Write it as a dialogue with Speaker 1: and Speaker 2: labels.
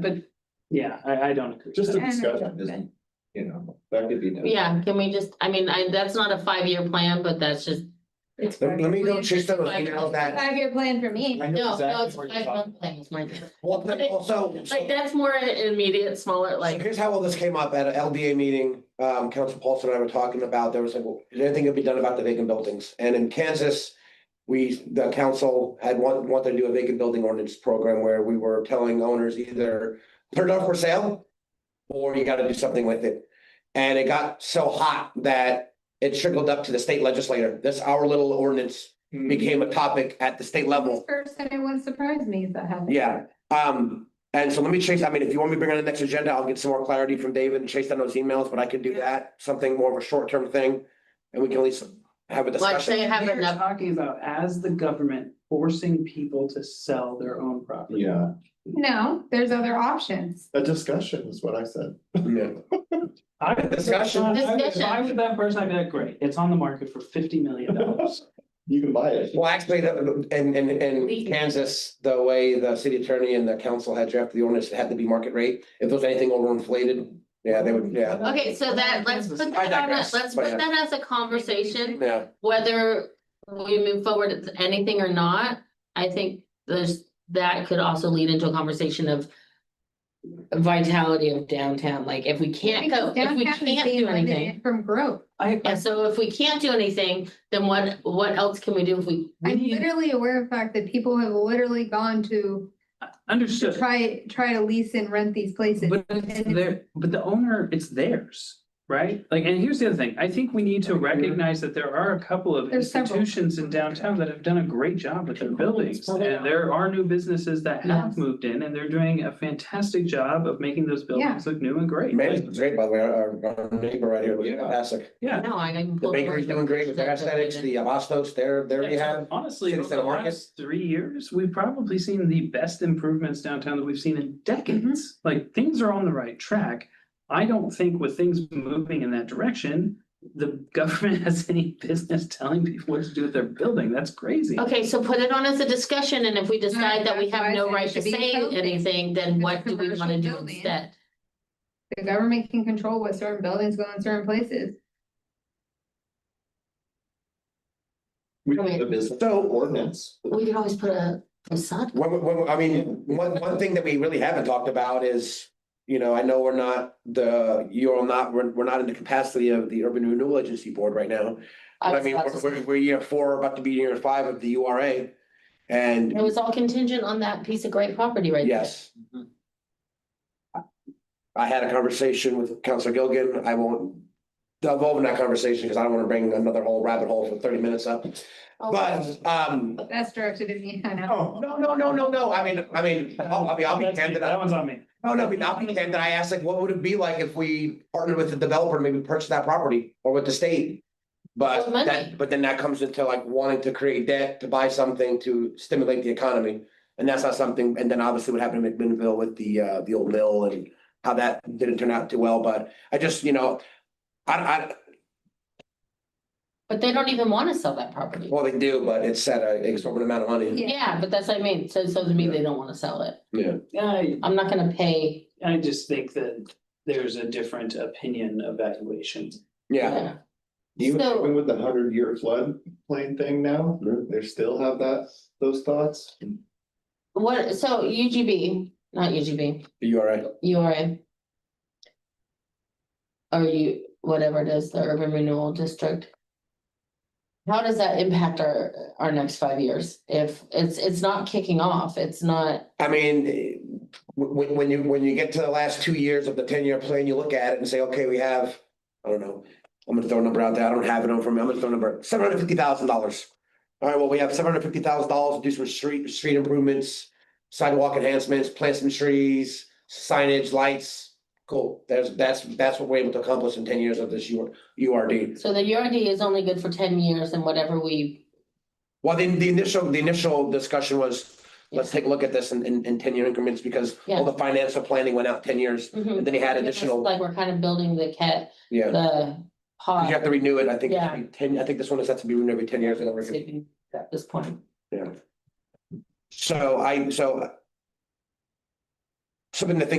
Speaker 1: But, yeah, I, I don't agree.
Speaker 2: Just a
Speaker 3: And-
Speaker 2: discussion, isn't, you know, that could be done.
Speaker 4: Yeah, can we just, I mean, I, that's not a five-year plan, but that's just,
Speaker 3: It's
Speaker 5: Let let me go check those
Speaker 4: Five
Speaker 5: emails that.
Speaker 3: Five year plan for me.
Speaker 5: I know
Speaker 4: no, no,
Speaker 5: exactly
Speaker 4: it's
Speaker 5: where you're
Speaker 4: five-month
Speaker 5: talking.
Speaker 4: plans, Martha.
Speaker 5: Well, then also, so
Speaker 4: Like, that's more immediate, smaller,
Speaker 5: so
Speaker 4: like,
Speaker 5: here's how all this came up at an LDA meeting. Um, Council Paulson and I were talking about, there was like, well, is anything gonna be done about the vacant buildings? And in Kansas, we, the council had want, wanted to do a vacant building ordinance program where we were telling owners either put it up for sale or you gotta do something with it. And it got so hot that it trickled up to the state legislature. This, our little ordinance became a topic at the state level.
Speaker 3: This person, it wouldn't surprise me if that happened.
Speaker 5: Yeah, um, and so let me chase, I mean, if you want me to bring on the next agenda, I'll get some more clarity from David and chase down those emails, but I could do that, something more of a short-term thing. And we can at least have a
Speaker 4: like, say,
Speaker 5: discussion.
Speaker 4: have
Speaker 1: We're
Speaker 4: enough,
Speaker 1: talking about as the government forcing people to sell their own property.
Speaker 2: Yeah,
Speaker 3: No, there's other options.
Speaker 2: a discussion is what I said.
Speaker 5: Yeah.
Speaker 1: I would,
Speaker 5: Discussion.
Speaker 1: I would- if I
Speaker 4: Discussion.
Speaker 1: was that person, I'd be like, great, it's on the market for fifty million dollars.
Speaker 2: You can buy it.
Speaker 5: Well, actually, the- in, in, in
Speaker 4: We-
Speaker 5: Kansas, the way the city attorney and the council had drafted the ordinance, it had to be market rate. If there was anything overinflated, yeah, they would, yeah,
Speaker 4: okay, so that, let's put
Speaker 1: I
Speaker 4: that on, a-
Speaker 5: digress,
Speaker 4: let's
Speaker 5: but
Speaker 4: put
Speaker 5: yeah.
Speaker 4: that as a conversation,
Speaker 5: yeah.
Speaker 4: whether we move forward with anything or not, I think there's, that could also lead into a conversation of vitality of downtown, like, if we can't go, if we
Speaker 3: Downtown is
Speaker 4: can't
Speaker 3: being
Speaker 4: do anything.
Speaker 3: limited From growth.
Speaker 1: I,
Speaker 4: And so if we can't do anything, then what, what else can we do if we,
Speaker 1: we
Speaker 3: I'm
Speaker 1: need,
Speaker 3: literally aware of the fact that people have literally gone to to
Speaker 1: understood,
Speaker 3: try, try to lease and rent these places.
Speaker 1: but it's
Speaker 3: And-
Speaker 1: there, but the owner, it's theirs, right? Like, and here's the other thing, I think we need to recognize that there are a couple of
Speaker 3: There's several.
Speaker 1: institutions in downtown that have done a great job with their buildings.
Speaker 4: Well, they
Speaker 1: And there are new businesses that have
Speaker 4: Yes.
Speaker 1: moved in and they're doing a fantastic job of making those buildings look new and great.
Speaker 5: Management great, by the way, our, our neighbor right here, was
Speaker 2: Yeah.
Speaker 5: fantastic.
Speaker 1: Yeah.
Speaker 4: no, I. can
Speaker 5: The
Speaker 4: pull
Speaker 5: bakery's doing great with their aesthetics, the Abastos, they're, there you have.
Speaker 1: Honestly,
Speaker 5: City
Speaker 1: over the
Speaker 5: Center Market.
Speaker 1: last three years, we've probably seen the best improvements downtown that we've seen in decades.
Speaker 5: Mm-hmm.
Speaker 1: Like, things are on the right track. I don't think with things moving in that direction, the government has any business telling people what to do with their building. That's crazy.
Speaker 4: Okay, so put it on as a discussion, and if we decide that we
Speaker 3: that's why
Speaker 4: have
Speaker 3: I
Speaker 4: no
Speaker 3: said it
Speaker 4: right to
Speaker 3: should be
Speaker 4: say
Speaker 3: something.
Speaker 4: anything,
Speaker 3: It's
Speaker 4: then
Speaker 3: a
Speaker 4: what do we wanna
Speaker 3: commercial
Speaker 4: do
Speaker 3: building.
Speaker 4: instead?
Speaker 3: The government can control what certain buildings go in certain places.
Speaker 2: We
Speaker 4: Okay.
Speaker 2: have a business
Speaker 5: So-
Speaker 2: ordinance.
Speaker 4: We could always put a facade.
Speaker 5: When, when, I mean, one, one thing that we really haven't talked about is, you know, I know we're not the, you're not, we're, we're not in the capacity of the Urban Renewal Agency Board right now. But I
Speaker 4: was
Speaker 5: mean,
Speaker 4: about
Speaker 5: we're,
Speaker 4: to
Speaker 5: we're,
Speaker 4: say.
Speaker 5: we're year four, about to be year five of the U R A. And
Speaker 4: It was all contingent on that piece of great property right there.
Speaker 5: yes. I had a conversation with Counselor Gilgan. I won't delve in that conversation because I don't want to bring another whole rabbit hole for thirty minutes up.
Speaker 4: Oh,
Speaker 5: But, um,
Speaker 3: That's directed at me, I know.
Speaker 5: no, no, no, no, no, no. I mean, I mean, I'll, I'll be, I'll be
Speaker 1: That's-
Speaker 5: candid.
Speaker 1: That one's on me.
Speaker 5: Oh, no, I mean, I'll be candid. I asked like, what would it be like if we partnered with the developer, and maybe purchase that property or with the state? But
Speaker 4: Well, money.
Speaker 5: that, but then that comes into like wanting to create debt to buy something to stimulate the economy. And that's not something, and then obviously what happened in McMinnville with the uh, the old mill and how that didn't turn out too well, but I just, you know. I, I,
Speaker 4: But they don't even wanna sell that property.
Speaker 5: well, they do, but it's at an exorbitant amount of money.
Speaker 3: Yeah.
Speaker 4: Yeah, but that's what I mean, so, so to me, they don't wanna sell it.
Speaker 1: I,
Speaker 4: I'm not gonna pay.
Speaker 1: I just think that there's a different opinion of valuations.
Speaker 5: Yeah,
Speaker 2: Even
Speaker 4: So-
Speaker 2: even with the hundred year flood plain thing now, they still have that, those thoughts.
Speaker 4: What, so UGB, not UGB,
Speaker 5: you are right.
Speaker 4: You are in. Are you, whatever it is, the urban renewal district? How does that impact our, our next five years? If it's, it's not kicking off, it's not,
Speaker 5: I mean, eh, w- when, when you, when you get to the last two years of the ten-year plan, you look at it and say, okay, we have, I don't know. I'm gonna throw a number out there. I don't have it on for me. I'm gonna throw a number, seven hundred fifty thousand dollars. All right, well, we have seven hundred fifty thousand dollars to do some street, street improvements, sidewalk enhancements, plant some trees, signage, lights. Cool. There's, that's, that's what we're able to accomplish in ten years of this U, URD.
Speaker 4: so the URD is only good for ten years and whatever we.
Speaker 5: Well, then the initial, the initial discussion was, let's take a look at this in, in, in ten-year increments because all the financial planning went out ten years.
Speaker 4: Mhm.
Speaker 5: And then he had
Speaker 4: It's
Speaker 5: additional,
Speaker 4: Like we're kind of building the cat,
Speaker 5: yeah,
Speaker 4: the
Speaker 5: 'Cause you have
Speaker 4: pod.
Speaker 5: to renew it, I think, it's
Speaker 4: Yeah.
Speaker 5: every ten, I think this one is set to be renewed every ten years. and every-
Speaker 4: At this point,
Speaker 5: So I, so something to think